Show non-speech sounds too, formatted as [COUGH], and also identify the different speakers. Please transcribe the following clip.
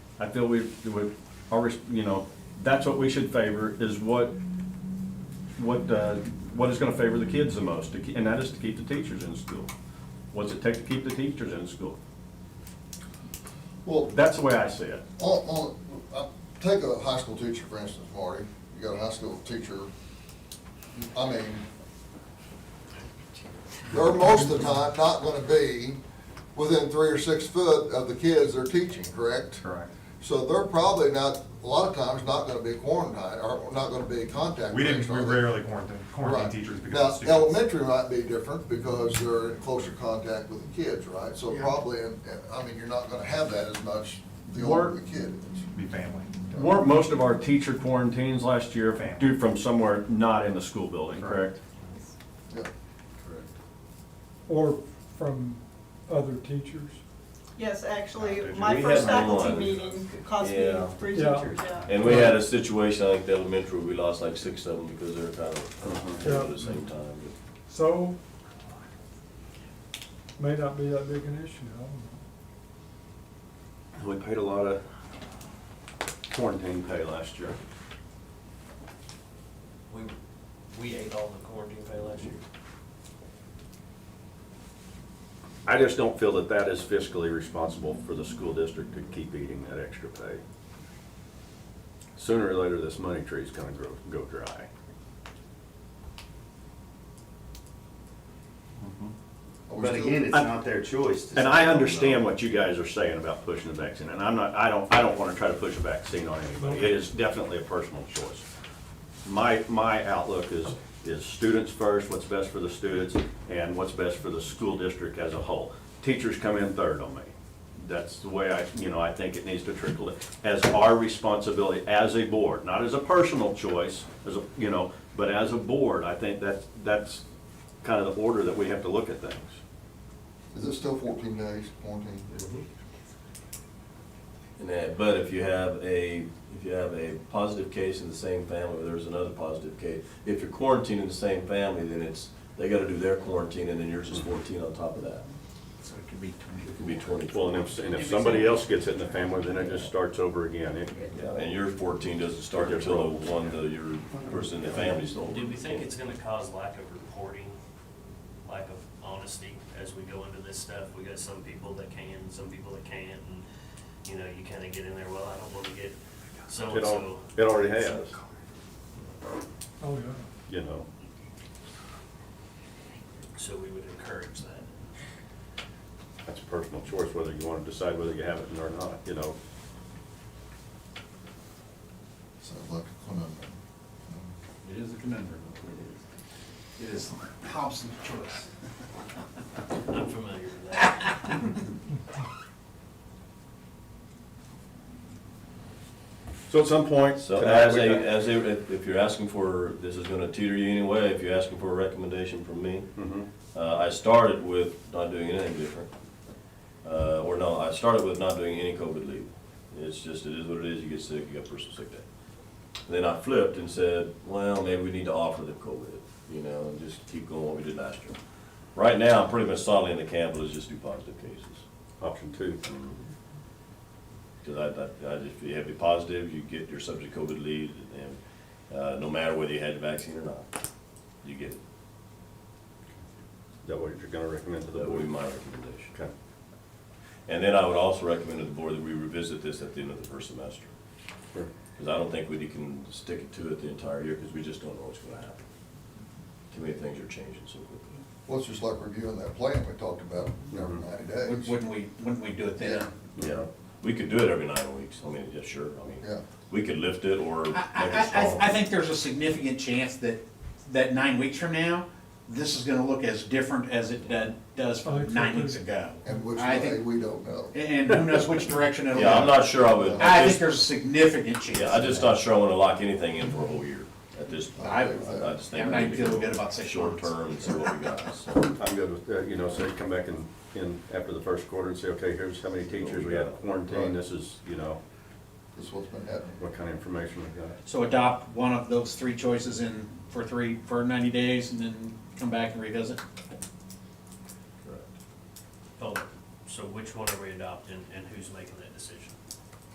Speaker 1: I feel we, we, our, res- you know, that's what we should favor, is what, what, uh, what is gonna favor the kids the most, to ke- and that is to keep the teachers in school. What's it take to keep the teachers in school?
Speaker 2: Well,
Speaker 1: That's the way I see it.
Speaker 2: on, on, uh, take a high school teacher, for instance, Marty, you got a high school teacher, I mean, they're most of the time not gonna be within three or six foot of the kids they're teaching, correct?
Speaker 1: Correct.
Speaker 2: So they're probably not, a lot of times, not gonna be quarantined, or not gonna be contact.
Speaker 3: We didn't,
Speaker 2: traced,
Speaker 3: we
Speaker 2: are they?
Speaker 3: rarely quarantine, quarantine
Speaker 2: Right.
Speaker 3: teachers because of
Speaker 2: Now,
Speaker 3: students.
Speaker 2: elementary might be different because they're in closer contact with the kids, right? So
Speaker 3: Yeah.
Speaker 2: probably, and- and, I mean, you're not gonna have that as much the
Speaker 1: Work.
Speaker 2: older the kid is.
Speaker 3: Be family.
Speaker 1: Weren't most of our teacher quarantines last year
Speaker 3: Family.
Speaker 1: due from somewhere not in the school building, correct?
Speaker 2: Yeah.
Speaker 4: Or from other teachers.
Speaker 5: Yes, actually,
Speaker 3: Did you-
Speaker 5: my
Speaker 6: we
Speaker 5: first
Speaker 6: had one.
Speaker 5: faculty meeting cost me
Speaker 6: Yeah.
Speaker 5: three
Speaker 4: Yeah.
Speaker 5: teachers, yeah.
Speaker 6: And we had a situation, I think the elementary, we lost like six of them because they were kind of
Speaker 1: Uh-huh.
Speaker 4: Yeah.
Speaker 6: at the same time.
Speaker 4: So, may not be that big an issue, I don't
Speaker 1: We paid a lot of quarantine pay last year.
Speaker 6: We, we ate all the quarantine pay last year.
Speaker 7: I just don't feel that that is fiscally responsible for the school district to keep eating that extra pay. Sooner or later, this money tree's gonna grow, go dry.
Speaker 2: Are we
Speaker 8: But
Speaker 2: still-
Speaker 8: again, it's
Speaker 7: I-
Speaker 8: not their choice. to
Speaker 7: And
Speaker 8: say
Speaker 7: I
Speaker 8: no.
Speaker 7: understand what you guys are saying about pushing the vaccine, and I'm not, I don't, I don't wanna try to push a vaccine on anybody. It is definitely a personal choice. My, my outlook is, is students first, what's best for the students, and what's best for the school district as a whole. Teachers come in third on me. That's the way I, you know, I think it needs to trickle in, as our responsibility as a board, not as a personal choice, as a, you know, but as a board, I think that's, that's kind of the order that we have to look at things.
Speaker 2: Is it still fourteen days quarantine?
Speaker 6: And that, but if you have a, if you have a positive case in the same family, or there's another positive case, if you're quarantined in the same family, then it's, they gotta do their quarantine, and then yours is fourteen on top of that.
Speaker 8: So it could be
Speaker 6: It can be
Speaker 7: Well,
Speaker 6: twenty-four.
Speaker 7: and if, and if somebody else gets it in the family, then it just starts over again. It-
Speaker 6: Yeah, and your fourteen doesn't start
Speaker 7: They're
Speaker 6: until
Speaker 7: broke.
Speaker 6: the one, the, your person in the family's older.
Speaker 9: Do we think it's gonna cause lack of reporting, lack of honesty as we go into this stuff? We got some people that can, some people that can't, and, you know, you kinda get in there, well, I don't wanna get
Speaker 7: It
Speaker 9: so-and-so.
Speaker 7: al, it already has,
Speaker 4: know. Oh, yeah.
Speaker 7: you know.
Speaker 9: So we would encourage that.
Speaker 7: That's a personal choice, whether you want to decide whether you have it or not, you know.
Speaker 2: Sounds like a conundrum.
Speaker 8: It is a conundrum. It is. It is Hobson's choice.
Speaker 9: I'm familiar with that.
Speaker 7: [LAUGHS] So at some point.
Speaker 6: So
Speaker 7: tonight,
Speaker 6: as
Speaker 7: we
Speaker 6: a,
Speaker 7: got-
Speaker 6: as a, if- if you're asking for, this is gonna teeter you anyway, if you're asking for a recommendation from me,
Speaker 7: Mhm.
Speaker 6: uh, I started with not doing anything different. Uh, or no, I started with not doing any COVID leave. It's just, it is what it is, you get sick, you got personal sick day. Then I flipped and said, well, maybe we need to offer them COVID, you know, and just keep going what we did last year. Right now, I'm pretty much solidly in the camp, let's just do positive cases.
Speaker 7: Option two.
Speaker 6: Because I, I, I just, if you have to be positive, you get your subject COVID leave, and, uh, no matter whether you had the vaccine or not, you get it.
Speaker 7: Is that what you're going to recommend to the
Speaker 6: That would be
Speaker 7: board?
Speaker 6: my recommendation.
Speaker 7: Okay.
Speaker 6: And then I would also recommend to the board that we revisit this at the end of the first semester.
Speaker 7: Sure.
Speaker 6: Because I don't think we can stick it to it the entire year, because we just don't know what's gonna happen. Too many things are changing so quickly.
Speaker 2: Well, it's just like reviewing that plan we talked about every ninety
Speaker 8: Wouldn't
Speaker 2: days.
Speaker 8: wouldn't we, wouldn't we do it then?
Speaker 6: Yeah, we could do it every nine weeks, I mean, yeah, sure, I mean,
Speaker 2: Yeah.
Speaker 6: we could lift it or make
Speaker 8: I, I,
Speaker 6: it
Speaker 8: I- I, I
Speaker 6: smaller.
Speaker 8: think there's a significant chance that, that nine weeks from now, this is gonna look as different as it did- does
Speaker 4: I
Speaker 7: Oh,
Speaker 8: from
Speaker 4: think
Speaker 8: nine
Speaker 4: so,
Speaker 8: weeks
Speaker 4: too.
Speaker 8: ago.
Speaker 2: And which
Speaker 8: I
Speaker 2: way,
Speaker 8: think-
Speaker 2: we don't know.
Speaker 8: And who knows which direction it'll go.
Speaker 6: Yeah, I'm not sure I would.
Speaker 8: I think
Speaker 6: just-
Speaker 8: there's a significant chance.
Speaker 6: Yeah, I'm
Speaker 8: of
Speaker 6: just
Speaker 8: that.
Speaker 6: not sure I wanna lock anything in for a whole year at this point.
Speaker 8: I-
Speaker 6: I just think.
Speaker 8: I'm
Speaker 6: we
Speaker 8: not
Speaker 6: need to
Speaker 8: feeling
Speaker 6: go
Speaker 8: good about six
Speaker 6: Short
Speaker 8: months.
Speaker 6: term and see what we got, so.
Speaker 7: I'm good with, that, you know, so you come back in, in after the first quarter and say, okay, here's how many teachers we have quarantined, this is, you know,
Speaker 2: This is what's been happening.
Speaker 7: what kind of information we got.
Speaker 8: So adopt one of those three choices in, for three, for ninety days and then come back and revisit?
Speaker 9: Oh, so which one are we adopting and who's making that decision?